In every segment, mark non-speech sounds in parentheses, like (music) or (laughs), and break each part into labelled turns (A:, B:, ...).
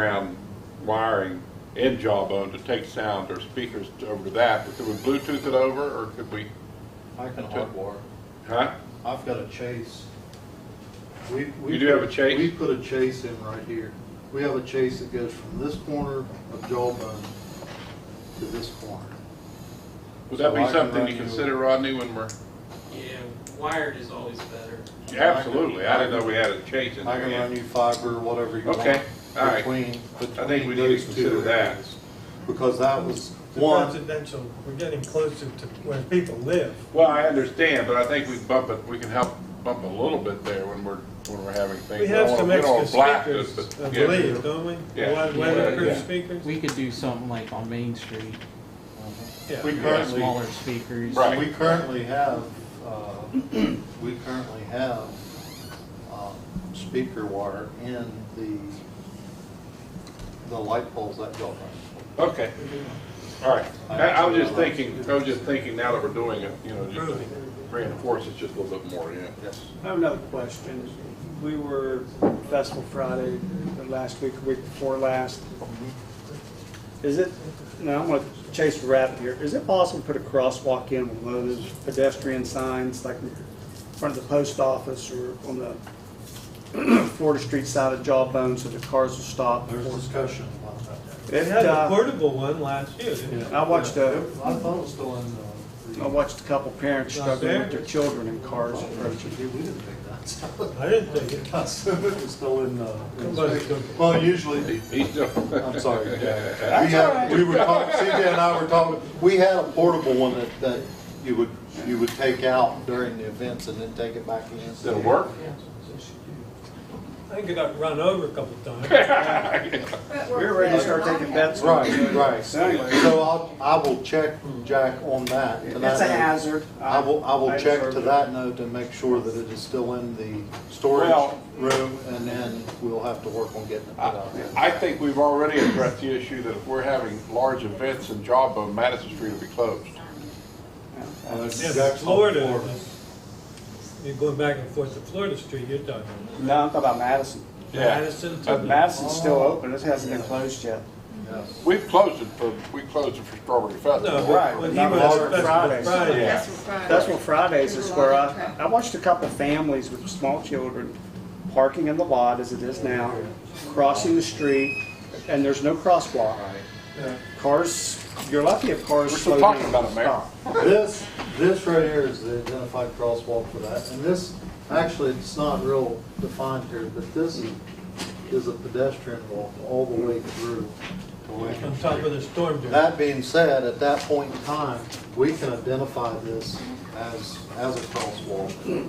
A: ground wiring in Jawbone to take sound or speakers to- over to that, but could we Bluetooth it over, or could we,
B: I can hardwire.
A: huh?
B: I've got a chase. We we
A: You do have a chase?
B: We put a chase in right here. We have a chase that goes from this corner of Jawbone to this corner.
A: Would that
B: So
A: be
B: I can
A: something
B: run
A: to
B: you-
A: consider, Rodney, when we're,
C: Yeah, wired is always better.
A: absolutely, I didn't know we had a change in
B: I
A: there
B: can run
A: yet.
B: you fiber, whatever you want.
A: Okay, all right.
B: Between,
A: I think we
B: between
A: need to
B: those two
A: consider that.
B: areas. Because that was
D: The
B: one,
D: residential, we're getting closer to where people live.
A: Well, I understand, but I think we bump it, we can help bump a little bit there when we're, when we're having things.
D: We
A: I don't
D: have
A: wanna-
D: some
A: we don't
D: extra
A: wanna blast it,
D: speakers,
A: but
D: I
A: yeah.
D: believe, don't we?
A: Yeah.
D: Weather-
A: Yeah.
D: Weatherproof speakers?
E: We could do something like on Main Street,
D: Yeah.
B: we currently.
E: smaller speakers.
A: Right.
B: We currently have, uh, (clears throat) we currently have um, speaker wire in the, the light poles that go around.
A: Okay, all right. I, I was just thinking, I was just thinking now that we're doing it, you know, just to reinforce it just a little bit more, yeah.
B: Yes.
F: I have another question. We were Festival Friday the last week, week before last. Is it, now I'm going to chase the rabbit here, is it possible to put a crosswalk in with one of those pedestrian signs like in front of the post office or on the (clears throat) Florida Street side of Jawbone so the cars will stop?
B: There's discussion about that.
D: They
F: It,
D: had a
F: uh,
D: portable one last year, didn't they?
F: I watched a,
B: I thought it was still in uh, the.
F: I watched a couple parents
D: Not
F: struggling with
D: there?
F: their children in cars approaching.
B: We didn't think that. (laughs)
D: I didn't think it.
B: I assume it was still in the.
D: Somebody took-
B: Well, usually,
A: He- He's still.
B: I'm sorry, (laughs) Jack. We had, we were talking, CJ and I were talking, we had a portable one that, that you would, you would take out during the events and then take it back in.
A: Does it work?
D: I think it got run over a couple
A: (laughs)
D: times.
F: We were ready to start taking bets. on it.
B: Right, right.
F: So anyway.
B: So I'll, I will check, Jack, on that. to that
F: It's a
B: note.
F: hazard.
B: I will, I will check
F: observed
B: to
F: it.
B: that note to make sure that it is still in the storage
A: Well-
B: room, and then we'll have to work on getting it put out
A: I
B: there.
A: I think we've already addressed the issue that if we're having large events in Jawbone, Madison Street will be closed.
B: Uh,
D: Yeah,
B: Jack's on
D: Florida.
B: board.
D: You're going back and forth to Florida Street, you're talking.
F: No, I'm talking about Madison.
D: Madison
A: Uh,
D: to.
F: Madison's still open, it hasn't been closed yet.
B: Yes.
A: We've closed it for, we closed it for Strawberry
D: No,
A: Festival.
F: Right,
D: but when he
F: not
D: was
F: Walter
D: Festival
F: Fridays.
D: Friday.
A: Yeah.
F: That's what Fridays is where I, I watched a couple families with small children parking in the lot as it is now, crossing the street, and there's no crosswalk. Cars, you're lucky if cars
A: We're
F: slow
A: still
F: down.
A: talking about it, Mayor.
F: Stop.
B: This, this right here is the identified crosswalk for that, and this, actually, it's not real defined here, but this is, is a pedestrian walk all the way through to Lincoln
D: On top
B: Street.
D: of the storm drain.
B: That being said, at that point in time, we can identify this as, as a crosswalk,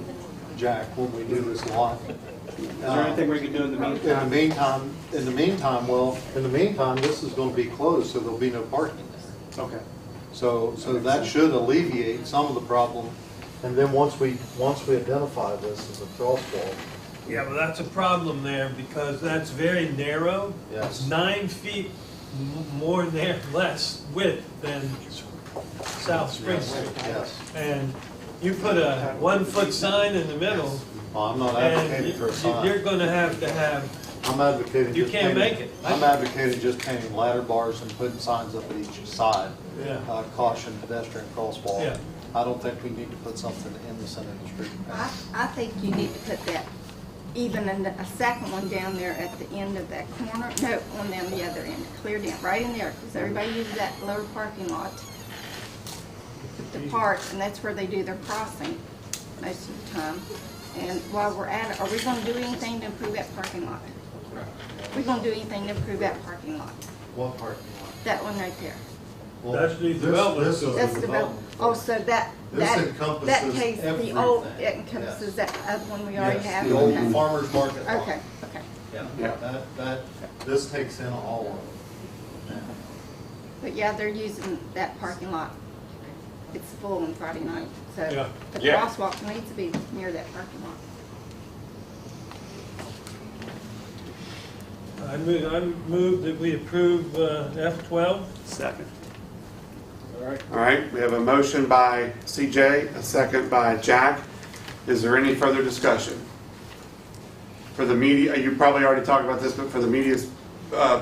B: Jack, when we do this lot. Uh,
F: Is there anything we can do in the
B: In the
F: meantime?
B: meantime, in the meantime, well, in the meantime, this is gonna be closed, so there'll be no parking there.
F: Okay.
B: So, so that should alleviate some of the problem. And then once we, once we identify this as a crosswalk,
D: Yeah, well, that's a problem there because that's very narrow.
B: Yes.
D: It's Nine feet m- more nar (laughs) less width than South Spring Street.
B: yes.
D: And you put a one-foot sign in the middle
B: Well, I'm not
D: and
B: advocating for a
D: you- you're
B: sign.
D: gonna have to have,
B: I'm advocating.
D: you
B: just
D: can't
B: painting-
D: make it.
B: I'm advocating just painting ladder bars and putting signs up at each side.
D: Yeah.
B: Uh, Caution pedestrian crosswalk.
D: Yeah.
B: I don't think we need to put something in the center of the street.
G: I, I think you need to put that, even in the- a second one down there at the end of that corner, no, on down the other end, clear down, right in there, because everybody uses that lower parking lot to park, and that's where they do their crossing most of the time. And while we're at it, are we gonna do anything to improve that parking lot? We gonna do anything to improve that parking lot?
B: What parking
G: That one right there?
B: lot?
D: That's the development.
G: That's the bill. Oh, so that,
B: This
G: that, that
B: encompasses
G: case, the old,
B: everything.
G: it encompasses that other one we already
B: Yes,
G: have?
B: the old
G: Okay.
B: farmer's market lot.
G: Okay, okay.
B: Yeah, that, that, this takes in all of it.
G: But yeah, they're using that parking lot. It's full on Friday night,
D: Yeah.
G: so the
A: Yeah.
G: crosswalk needs to be near that parking lot.
D: I move, I move that we approve uh, F twelve.
F: Second.
H: All right, we have a motion by CJ, a second by Jack. Is there any further discussion? For the media, you probably already talked about this, but for the media's uh,